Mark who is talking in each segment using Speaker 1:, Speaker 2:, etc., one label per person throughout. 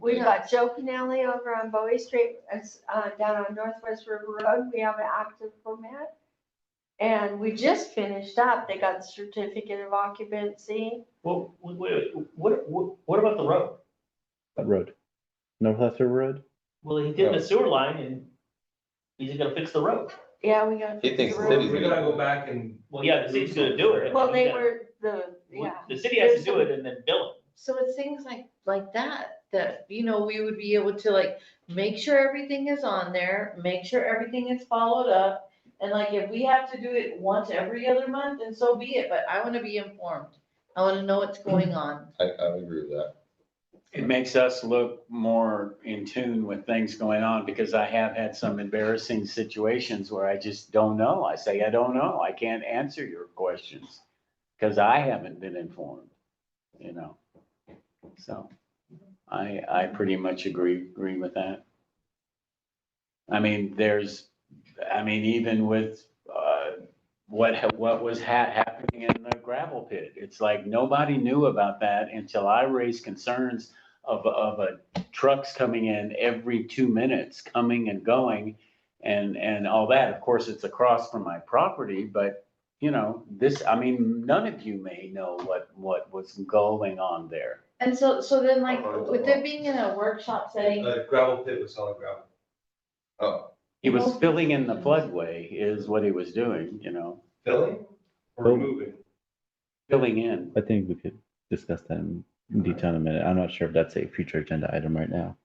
Speaker 1: We've got Joe Canale over on Bowie Street, it's, uh, down on Northwest River Road, we have an active permit. And we just finished up, they got the certificate of occupancy,
Speaker 2: Well, wait, wait, wait, what, what, what about the road?
Speaker 3: That road, Northwest River Road?
Speaker 2: Well, he did the sewer line and he's gonna fix the road.
Speaker 1: yeah, we got.
Speaker 4: He thinks the city's
Speaker 5: We gotta go back and.
Speaker 2: Well, yeah, the city's gonna do it.
Speaker 1: Well, they were the, yeah,
Speaker 2: The city has to do it and then bill
Speaker 6: So it's things like, like that, that, you know, we would be able to like, make sure everything is on there, make sure everything is followed up. And like, if we have to do it once every other month, then so be it, but I wanna be informed. I wanna know what's going on.
Speaker 4: I, I would agree with that.
Speaker 7: It makes us look more in tune with things going on because I have had some embarrassing situations where I just don't know. I say, I don't know. I can't answer your questions because I haven't been informed, you know? So I, I pretty much agree, agree with that. I mean, there's, I mean, even with, uh, what, what was ha- happening in the gravel pit. It's like nobody knew about that until I raised concerns of, of a trucks coming in every two minutes, coming and going and, and all that. Of course, it's across from my property, but you know, this, I mean, none of you may know what, what was going on there.
Speaker 6: And so, so then like,
Speaker 5: Uh-huh.
Speaker 6: with it being in a workshop setting,
Speaker 5: The gravel pit was solid gravel.
Speaker 4: Oh,
Speaker 7: He was filling in the floodway is what he was doing, you know,
Speaker 5: Filling or
Speaker 3: Fill.
Speaker 5: removing?
Speaker 7: filling in.
Speaker 3: I think we could discuss that in detail in a minute. I'm not sure if that's a future agenda item right now.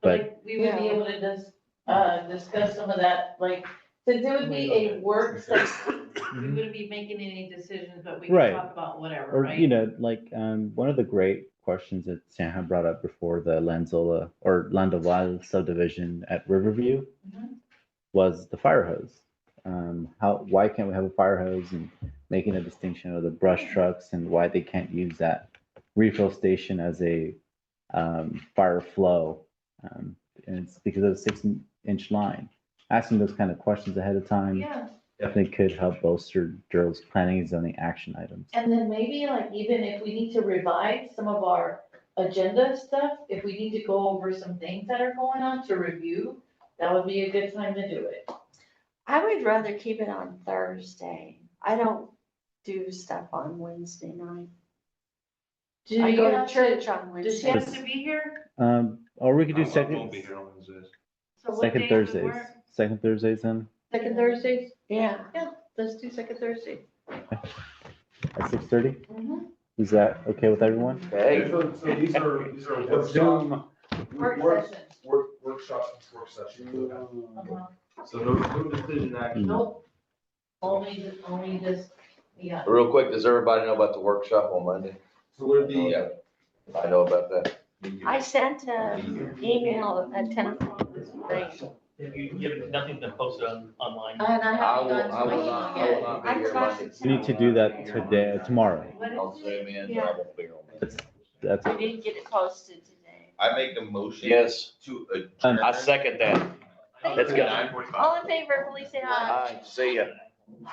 Speaker 3: But-
Speaker 6: like, we would be
Speaker 1: Yeah.
Speaker 6: able to dis uh, discuss some of that, like, since it would be a work session,
Speaker 3: Mhm.
Speaker 6: we wouldn't be making any decisions, but we could
Speaker 3: Right.
Speaker 6: talk about whatever,
Speaker 3: Or,
Speaker 6: right?
Speaker 3: you know, like, um, one of the great questions that Sam had brought up before the Lanzola or Landoval subdivision at Riverview
Speaker 6: Mhm.
Speaker 3: was the fire hose. Um, how, why can't we have a fire hose and making a distinction of the brush trucks and why they can't use that refill station as a, um, fire flow? Um, and it's because of the six inch line. Asking those kind of questions ahead of time
Speaker 6: Yeah,
Speaker 3: definitely could help bolster Durham's planning and zoning action items.
Speaker 6: and then maybe like even if we need to revise some of our agenda stuff, if we need to go over some things that are going on to review, that would be a good time to do it.
Speaker 1: I would rather keep it on Thursday, I don't do stuff on Wednesday night.
Speaker 6: Do you
Speaker 1: I go
Speaker 6: have
Speaker 1: to
Speaker 6: to-
Speaker 1: church on Wednesday.
Speaker 6: Does she have to be here?
Speaker 3: Um, or we could do
Speaker 5: I won't
Speaker 3: second,
Speaker 5: be here on Wednesdays.
Speaker 6: So what
Speaker 3: second
Speaker 6: day would
Speaker 3: Thursdays,
Speaker 6: work?
Speaker 3: second Thursdays then,
Speaker 6: Second Thursdays,
Speaker 1: Yeah,
Speaker 6: let's do second Thursday.
Speaker 3: at six thirty?
Speaker 6: Mm-hmm.
Speaker 3: Is that okay with everyone?
Speaker 7: Hey.
Speaker 5: So, so these are, these are workshops,
Speaker 7: Zoom.
Speaker 6: Work
Speaker 5: work,
Speaker 6: session.
Speaker 5: work, workshops, and work sessions.
Speaker 6: Uh-huh.
Speaker 5: So no, no decision action.
Speaker 6: Nope. Only, only just, yeah.
Speaker 4: real quick, does everybody know about the workshop on Monday?
Speaker 5: So would it be,
Speaker 4: Yeah, I know about that.
Speaker 1: I sent an email at ten o'clock this morning.
Speaker 2: it. You, you have nothing to post on, online.
Speaker 6: And I
Speaker 4: I
Speaker 6: haven't
Speaker 4: will,
Speaker 6: gone
Speaker 4: I
Speaker 6: to
Speaker 4: will
Speaker 6: my
Speaker 4: not, I will
Speaker 6: email
Speaker 4: not be
Speaker 1: I
Speaker 4: here
Speaker 1: tried
Speaker 4: Monday.
Speaker 1: to
Speaker 3: We need to do that today, tomorrow.
Speaker 6: yet.
Speaker 4: I'll
Speaker 6: What is it?
Speaker 4: zoom in, but I won't be here on Monday.
Speaker 3: That's,
Speaker 1: We didn't get it posted today.
Speaker 4: I make the motion.
Speaker 7: Yes,
Speaker 4: To
Speaker 3: Um,
Speaker 4: adjourn.
Speaker 7: I second that. Let's go.
Speaker 4: Nine forty-five.
Speaker 1: All in favor, please say aye.
Speaker 7: Aye, see ya.